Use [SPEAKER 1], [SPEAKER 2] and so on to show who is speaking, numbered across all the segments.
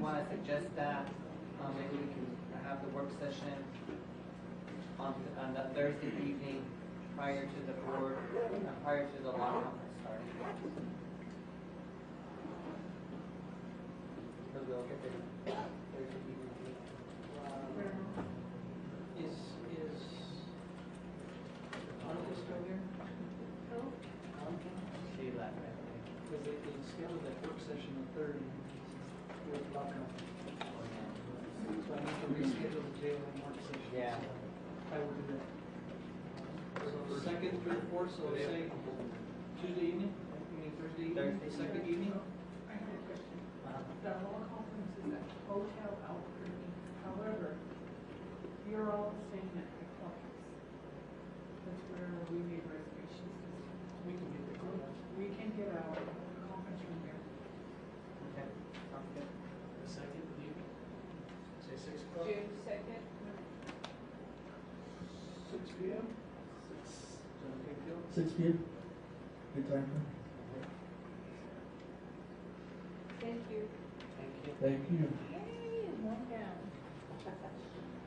[SPEAKER 1] wanna suggest that, um, maybe we can have the work session on, on that Thursday evening prior to the board, uh, prior to the law conference starting. So we'll get the Thursday evening.
[SPEAKER 2] Uh, Is, is Annika still here? Annika?
[SPEAKER 1] She left, I think.
[SPEAKER 2] Because they, they scheduled that work session on third and fourth block out. So I need to reschedule the jail and work session.
[SPEAKER 1] Yeah.
[SPEAKER 2] so I will do that. So second, third, fourth, so say
[SPEAKER 1] Uh-huh.
[SPEAKER 2] Tuesday evening, I mean Thursday evening,
[SPEAKER 1] Thursday.
[SPEAKER 2] second evening?
[SPEAKER 3] I have a question. The law conference is at Hotel Albuquerque. However, you're all staying at the caucus. That's where we made reservations. this year.
[SPEAKER 2] We can get the
[SPEAKER 3] We can get our conference room there.
[SPEAKER 1] Okay, sounds good.
[SPEAKER 2] The second evening? Say six o'clock?
[SPEAKER 4] June second,
[SPEAKER 2] Six P M? Six. John Capefield?
[SPEAKER 5] Six P M? Good time, huh?
[SPEAKER 4] thank you.
[SPEAKER 2] Thank you.
[SPEAKER 5] Thank you.
[SPEAKER 4] Yay, one down.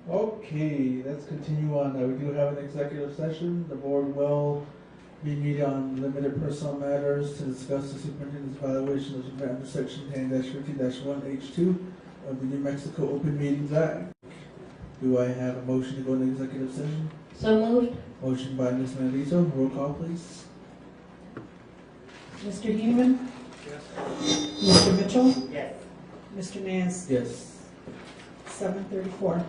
[SPEAKER 5] Okay, let's continue on. Uh, We do have an executive session. The board will be meeting on limited personal matters to discuss the superintendent's violation of Nevada section ten fifty one H two of the New Mexico Open Meetings Act. Do I have a motion to go into executive session?
[SPEAKER 6] So moved.
[SPEAKER 5] Motion by Ms. Melito, roll call please.
[SPEAKER 6] Mr. Human?
[SPEAKER 2] Yes.
[SPEAKER 6] Mr. Mitchell?
[SPEAKER 1] Yes.
[SPEAKER 6] Mr. Nance?
[SPEAKER 5] Yes.
[SPEAKER 6] Seven thirty-four.